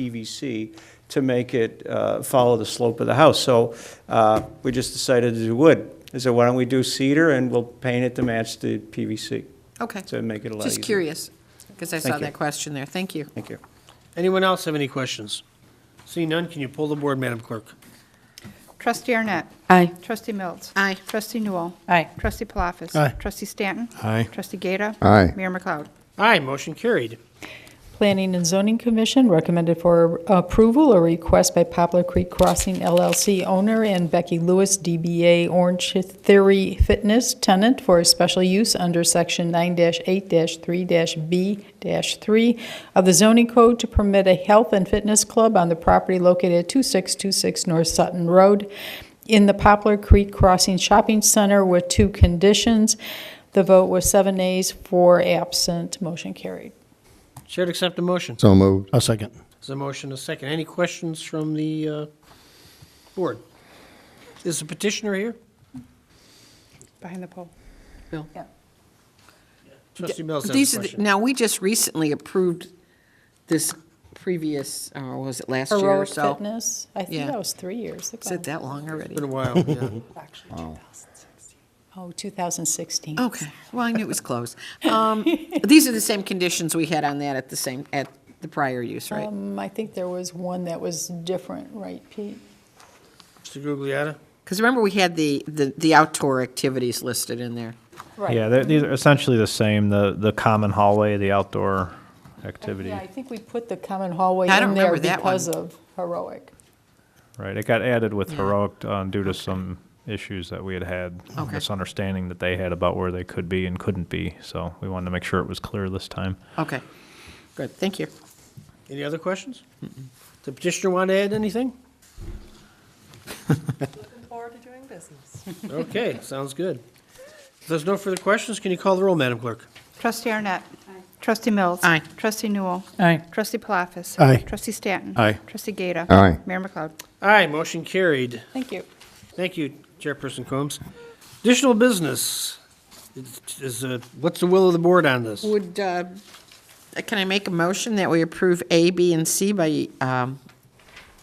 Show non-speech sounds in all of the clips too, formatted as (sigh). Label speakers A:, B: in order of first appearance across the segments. A: PVC to make it uh, follow the slope of the house. So uh, we just decided to do wood. I said, why don't we do cedar and we'll paint it to match the PVC
B: Okay,
A: to make it a lot easier.
B: just curious, because I
A: Thank
B: saw
A: you.
B: that question there. Thank you.
A: Thank you.
C: Anyone else have any questions? Seeing none, can you pull the board, Madam Clerk?
D: Trustee Arnett.
E: Aye.
D: Trustee Mills.
B: Aye.
D: Trustee Newell.
E: Aye.
D: Trustee Palafis.
C: Aye.
D: Trustee Stanton.
F: Aye.
D: Trustee Gata.
F: Aye.
D: Mayor McLeod.
C: Aye, motion carried.
E: Planning and Zoning Commission recommended for approval a request by Poplar Creek Crossing LLC owner and Becky Lewis, DBA Orange Theory Fitness tenant for a special use under Section 9-8-3-B-3 of the zoning code to permit a health and fitness club on the property located at 2626 North Sutton Road in the Poplar Creek Crossing Shopping Center with two conditions. The vote was seven ayes, four absent, motion carried.
C: Chair to accept the motion.
F: So moved.
G: I'll second.
C: There's a motion, a second. Any questions from the uh, board? Is the petitioner here?
D: Behind the poll.
B: Bill?
C: Trustee Mills has
B: These
C: a
B: are the-
C: question.
B: Now, we just recently approved this previous, or was it last year or
E: Heroic
B: so?
E: Fitness, I think
B: Yeah.
E: that was three years ago.
B: Is it that long already?
C: Been a while, yeah.
E: Oh, 2016.
B: Okay, well, I knew it was close. Um, (laughs) These are the same conditions we had on that at the same, at the prior use, right?
E: Um, I think there was one that was different, right, Pete?
C: Mr. Gugliotta?
B: Because remember, we had the, the the outdoor activities listed in there.
H: Yeah, they're, these are essentially the same, the, the common hallway, the outdoor activity,
E: Yeah, I think we put the common hallway
B: I don't
E: in there
B: remember that one.
E: because of Heroic.
H: right? It got added with
B: Yeah.
H: Heroic uh, due to some issues that we had had,
B: Okay.
H: misunderstanding that they had about where they could be and couldn't be, so we wanted to make sure it was clear this time.
B: Okay, good, thank you.
C: Any other questions? The petitioner want to add anything? Looking forward to doing business. Okay, sounds good. If there's no further questions, can you call the roll, Madam Clerk?
D: Trustee Arnett. Trustee Mills.
B: Aye.
D: Trustee Newell.
E: Aye.
D: Trustee Palafis.
G: Aye.
D: Trustee Stanton.
F: Aye.
D: Trustee Gata.
F: Aye.
D: Mayor McLeod.
C: Aye, motion carried.
E: Thank you.
C: Thank you, Chairperson Combs. Additional business. Is- Is, uh, what's the will of the board on this?
B: Would, uh, can I make a motion that we approve A, B, and C by um,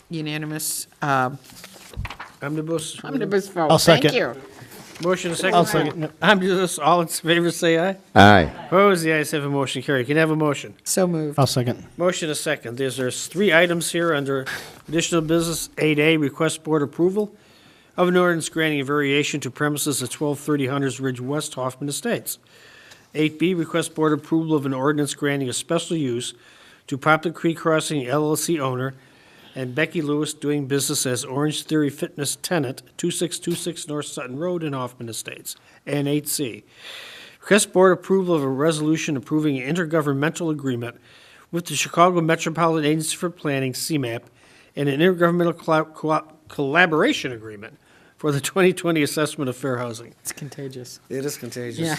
B: unanimous, um,
C: Omnibus?
B: omnibus vote?
G: I'll
B: Thank
G: second.
B: you.
C: Motion and second.
G: I'll second.
C: Omnibus, all in favor, say aye.
F: Aye.
C: Opposed, the ayes have a motion carried. Can I have a motion?
B: So moved.
G: I'll second.
C: Motion a second. There's, there's three items here under additional business. Eight A, request board approval of an ordinance granting a variation to premises at twelve thirty Hunters Ridge West Hoffman Estates. Eight B, request board approval of an ordinance granting a special use to Poplar Creek Crossing LLC owner and Becky Lewis doing business as Orange Theory Fitness tenant, two six two six North Sutton Road in Hoffman Estates. And eight C, request board approval of a resolution approving an intergovernmental agreement with the Chicago Metropolitan Agency for Planning, CMAP, and an intergovernmental colla- co- collaboration agreement for the 2020 assessment of fair housing.
B: It's contagious.
C: It is contagious.
B: Yeah.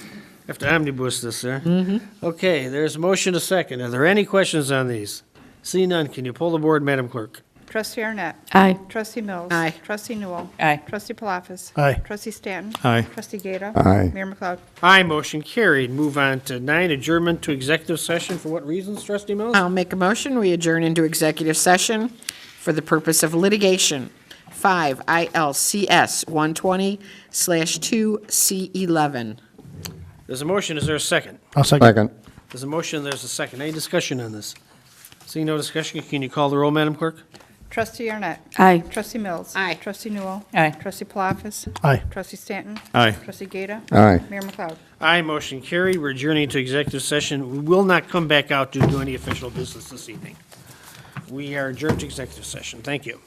C: (laughs) Have to omnibus this, sir. Mm-hmm. Okay, there's a motion a second. Are there any questions on these? See none, can you pull the board, Madam Clerk?
D: Trustee Arnett.
E: Aye.
D: Trustee Mills.
B: Aye.
D: Trustee Newell.
E: Aye.
D: Trustee Palafis.
G: Aye.
D: Trustee Stanton.
G: Aye.
D: Trustee Gata.
F: Aye.
D: Mayor McLeod.
C: Aye, motion carried. Move on to nine, adjournment to executive session. For what reasons, trustee Mills?
B: I'll make a motion, we adjourn into executive session for the purpose of litigation, 5 ILCS 120/2C11.
C: There's a motion, is there a second?
G: I'll second.
F: Second.
C: There's a motion, there's a second. Any discussion on this? Seeing no discussion, can you call the roll, Madam Clerk?
D: Trustee Arnett.
E: Aye.
D: Trustee Mills.
B: Aye.
D: Trustee Newell.
E: Aye.
D: Trustee Palafis.
G: Aye.
D: Trustee Stanton.
G: Aye.
D: Trustee Gata.
F: Aye.
D: Mayor McLeod.
C: Aye, motion carried. We're adjourning to executive session. We will not come back out to do any official business this evening. We are adjourned to executive session. Thank you.